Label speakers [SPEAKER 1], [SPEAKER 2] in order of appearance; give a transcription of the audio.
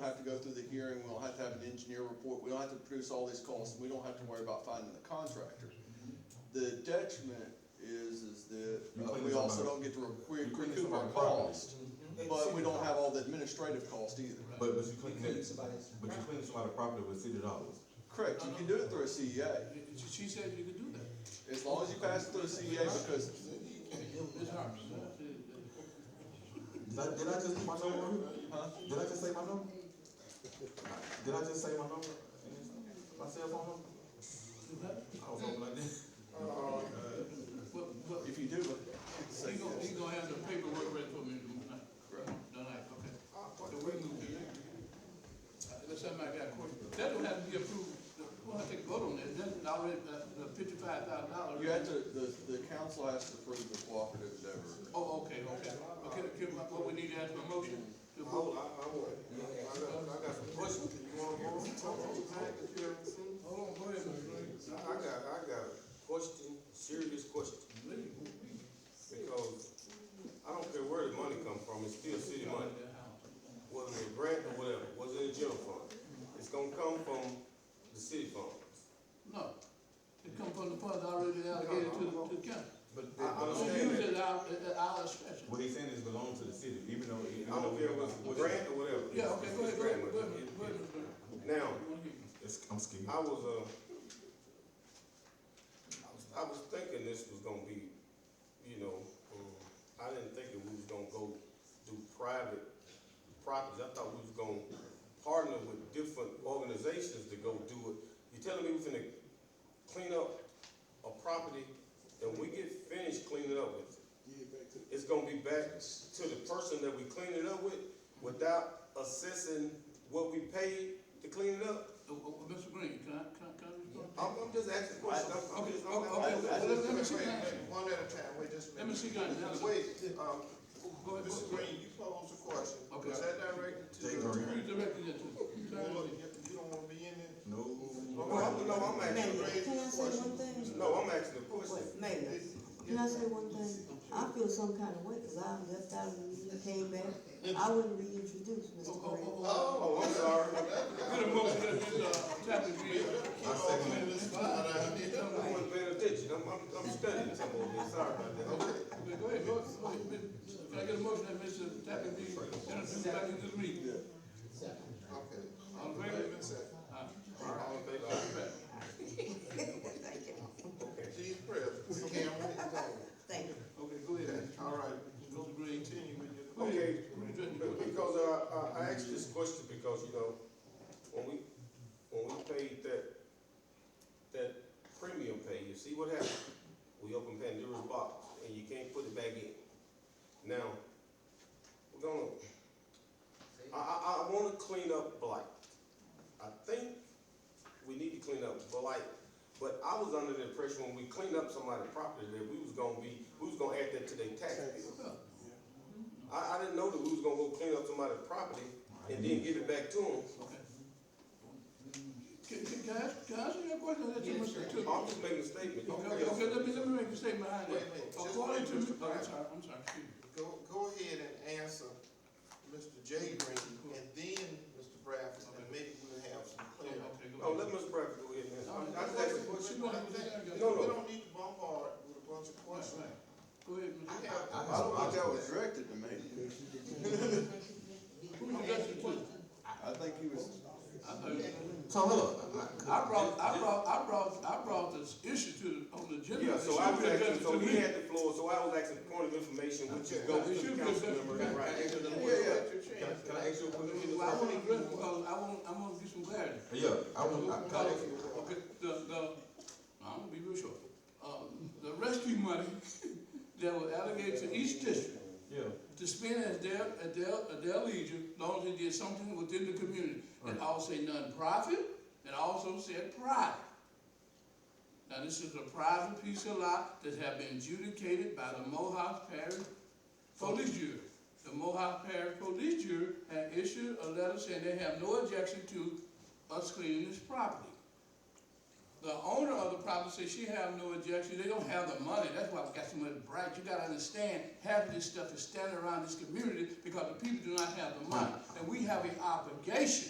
[SPEAKER 1] have to go through the hearing, we don't have to have an engineer report, we don't have to produce all these costs, and we don't have to worry about finding the contractor. The detriment is, is that
[SPEAKER 2] You
[SPEAKER 1] uh,
[SPEAKER 2] clean
[SPEAKER 1] we
[SPEAKER 2] some
[SPEAKER 1] also
[SPEAKER 2] of-
[SPEAKER 1] don't get to re-
[SPEAKER 2] you
[SPEAKER 1] we
[SPEAKER 2] clean
[SPEAKER 1] recoup
[SPEAKER 2] some of
[SPEAKER 1] our
[SPEAKER 2] our property.
[SPEAKER 1] cost, but we don't have all the administrative cost either.
[SPEAKER 2] But, but you clean,
[SPEAKER 3] You
[SPEAKER 2] but
[SPEAKER 3] clean somebody's
[SPEAKER 2] you clean somebody's property with city dollars.
[SPEAKER 1] Correct, you can do it through a CEA,
[SPEAKER 4] She- She said you could do that.
[SPEAKER 1] as long as you pass it through a CEA, because
[SPEAKER 4] It's hers.
[SPEAKER 2] Did I, did I just put my number on here?
[SPEAKER 1] Huh?
[SPEAKER 2] Did I just say my number? Did I just say my number? My cell phone number? I was hoping I did.
[SPEAKER 4] But, but,
[SPEAKER 1] If you do, it,
[SPEAKER 4] he gonna, he gonna have the paperwork ready for me tonight,
[SPEAKER 1] correct.
[SPEAKER 4] tonight, okay? So we move to that. Uh, Unless somebody got a question, that don't have to be approved, we'll have to take a vote on that, that's already, uh, the fifty-five thousand dollars.
[SPEAKER 1] You have to, the, the council has to approve the cooperative endeavor. agreement.
[SPEAKER 4] Oh, okay, okay, okay, give my, what we need to ask for a motion to vote. Hold on, go ahead, Mr. Green.
[SPEAKER 5] I got, I got a question, serious question, because I don't care where the money come from, it's still city money. Whether it's a grant or whatever, whether it's a general fund, it's gonna come from the city funds.
[SPEAKER 4] No, it come from the funds already allocated to, to the county.
[SPEAKER 2] But it
[SPEAKER 5] I- I
[SPEAKER 4] So
[SPEAKER 2] belongs-
[SPEAKER 5] understand.
[SPEAKER 4] use it uh, at our, at our discretion.
[SPEAKER 2] what he's saying is belongs to the city, even though. even
[SPEAKER 5] I
[SPEAKER 2] though
[SPEAKER 5] don't
[SPEAKER 2] we
[SPEAKER 5] care whether
[SPEAKER 2] what
[SPEAKER 5] it's
[SPEAKER 2] it-
[SPEAKER 5] a grant or whatever.
[SPEAKER 4] Yeah, okay, go ahead, go ahead, go ahead,
[SPEAKER 5] It's
[SPEAKER 4] go ahead, Mr. Green. Oh,
[SPEAKER 5] grant money. Now,
[SPEAKER 2] It's, I'm scared.
[SPEAKER 5] I was, uh, I was, I was thinking this was gonna be, you know, um, I didn't think that we was gonna go do private properties. I thought we was gonna partner with different organizations to go do it. You telling me we finna clean up a property, and we get finished cleaning up with it? It's gonna be back to the person that we cleaned it up with, without assessing what we paid to clean it up?
[SPEAKER 4] Oh, oh, Mr. Green, can I, can I, can I respond?
[SPEAKER 5] I'm, I'm just asking questions. I'm, I'm
[SPEAKER 4] Okay,
[SPEAKER 5] just,
[SPEAKER 4] okay,
[SPEAKER 5] I'm, I'm,
[SPEAKER 4] okay,
[SPEAKER 5] just-
[SPEAKER 4] let- let let me see,
[SPEAKER 6] Wait,
[SPEAKER 4] that.
[SPEAKER 6] wait, One at a time, wait just a
[SPEAKER 4] let me
[SPEAKER 6] minute.
[SPEAKER 4] see, guys, now, go ahead,
[SPEAKER 6] Wait, um,
[SPEAKER 4] go ahead.
[SPEAKER 6] Mr. Green, you posed a question.
[SPEAKER 4] Okay.
[SPEAKER 6] Was that directed to?
[SPEAKER 2] Jay
[SPEAKER 6] the
[SPEAKER 2] Green.
[SPEAKER 6] attorney?
[SPEAKER 4] You directed it to,
[SPEAKER 6] You
[SPEAKER 4] you directed
[SPEAKER 6] don't-
[SPEAKER 4] it.
[SPEAKER 6] you don't wanna be in it?
[SPEAKER 2] No.
[SPEAKER 5] Well, I'm- no, I'm asking,
[SPEAKER 6] You raised
[SPEAKER 7] Can I
[SPEAKER 6] the
[SPEAKER 7] say one
[SPEAKER 6] question.
[SPEAKER 7] thing?
[SPEAKER 5] no, I'm asking a question.
[SPEAKER 7] Wait, Mayor,
[SPEAKER 6] It's-
[SPEAKER 7] can I say one thing? I feel some kind of way, cause I left out of the meeting, came back, I wouldn't reintroduce
[SPEAKER 4] Oh, oh,
[SPEAKER 7] Mr. Green.
[SPEAKER 4] oh,
[SPEAKER 5] Oh, I'm sorry.
[SPEAKER 4] oh. Get a motion, let this, uh, chapter be,
[SPEAKER 6] Keep off in this spot, I mean,
[SPEAKER 5] I wasn't paying attention. I'm, I'm, I'm studying some of this. Sorry about that.
[SPEAKER 4] okay, go ahead, go ahead, go ahead, Mr. can I get a motion that Mr. Chapter be introduced back into the meeting?
[SPEAKER 6] Okay.
[SPEAKER 4] All in
[SPEAKER 6] Wait a
[SPEAKER 4] favor? Ah,
[SPEAKER 6] minute, second.
[SPEAKER 4] Aye.
[SPEAKER 5] All in favor?
[SPEAKER 6] She's present. We can't wait.
[SPEAKER 7] Thank you.
[SPEAKER 4] Okay, go ahead,
[SPEAKER 6] All right,
[SPEAKER 4] Mr. Green,
[SPEAKER 6] continue with your question.
[SPEAKER 5] Okay,
[SPEAKER 4] address the
[SPEAKER 5] But because uh, I, I, I asked this question because, you know, when we, when we paid that, that premium pay, you see what happened? We opened Pandora's box and you can't put it back in. Now, we're gonna, I, I, I wanna clean up blight. I think we need to clean up blight, but I was under the impression when we cleaned up somebody's property that we was gonna be, we was gonna add that to their tax bill. I, I didn't know that we was gonna go clean up somebody's property and then give it back to them.
[SPEAKER 4] Okay. Can, can, can I, ask- can I ask you a question? Let
[SPEAKER 6] Yes,
[SPEAKER 4] you, Mr.
[SPEAKER 6] sir.
[SPEAKER 4] Toots-
[SPEAKER 5] I'm just making a statement.
[SPEAKER 4] Okay, okay, let me, let me make a statement behind
[SPEAKER 6] Wait a
[SPEAKER 4] that.
[SPEAKER 6] minute, just
[SPEAKER 4] According to,
[SPEAKER 6] wait,
[SPEAKER 4] Mr.
[SPEAKER 6] Mr.
[SPEAKER 4] oh, I'm
[SPEAKER 6] Brown.
[SPEAKER 4] sorry, I'm sorry, excuse me.
[SPEAKER 6] Go, go ahead and answer Mr. J Green, and then Mr. Bradford, and maybe we'll have some
[SPEAKER 4] Okay,
[SPEAKER 6] clarity.
[SPEAKER 4] okay, go
[SPEAKER 5] Oh, let
[SPEAKER 4] ahead.
[SPEAKER 5] Ms. Bradford go ahead and
[SPEAKER 4] All right,
[SPEAKER 5] answer. I just asked a
[SPEAKER 4] go ahead.
[SPEAKER 5] question.
[SPEAKER 4] You gonna have to say that?
[SPEAKER 5] No,
[SPEAKER 6] We
[SPEAKER 5] no.
[SPEAKER 6] don't need to bombard with a bunch of questions.
[SPEAKER 4] Go ahead,
[SPEAKER 6] We
[SPEAKER 4] Mr.
[SPEAKER 2] I
[SPEAKER 6] have,
[SPEAKER 2] have
[SPEAKER 1] I
[SPEAKER 2] a
[SPEAKER 1] don't think that was
[SPEAKER 2] problem.
[SPEAKER 1] directed to me.
[SPEAKER 4] Who you got your question?
[SPEAKER 1] I think he was,
[SPEAKER 4] I know you.
[SPEAKER 2] So look,
[SPEAKER 4] I brought, I brought, I brought, I brought this issue to, the- on the agenda.
[SPEAKER 5] Yeah,
[SPEAKER 4] It
[SPEAKER 5] so
[SPEAKER 4] should
[SPEAKER 5] I
[SPEAKER 4] be
[SPEAKER 5] was
[SPEAKER 4] addressed
[SPEAKER 5] asking, so
[SPEAKER 4] to
[SPEAKER 5] he
[SPEAKER 4] me.
[SPEAKER 5] had the floor, so I was asking point of information, which is goes
[SPEAKER 4] It
[SPEAKER 5] to
[SPEAKER 4] should be
[SPEAKER 5] the council
[SPEAKER 4] addressed to
[SPEAKER 5] member,
[SPEAKER 4] me.
[SPEAKER 5] right?
[SPEAKER 6] Answer the
[SPEAKER 4] Yeah,
[SPEAKER 6] board,
[SPEAKER 4] yeah.
[SPEAKER 6] let your
[SPEAKER 2] Can
[SPEAKER 6] chance.
[SPEAKER 2] can I ask you a question?
[SPEAKER 4] Well, I wanna address, because I want, I wanna get some clarity.
[SPEAKER 2] Yeah, I want, I,
[SPEAKER 4] Because, okay, the, the, I'm gonna be real short. Um, the rescue money that was allocated to each district
[SPEAKER 2] yeah,
[SPEAKER 4] to spend as their, at their, at their leisure, as long as they did something within the community. And
[SPEAKER 2] Right.
[SPEAKER 4] I will say nonprofit, and I also said private. Now, this is a private piece of lot that have been adjudicated by the Mohawk Parish Police Jury. The Mohawk Parish Police Jury had issued a letter saying they have no objection to us cleaning this property. The owner of the property says she have no objection, they don't have the money, that's why we got so much bright, you gotta understand, half of this stuff is standing around this community because the people do not have the money, and we have an obligation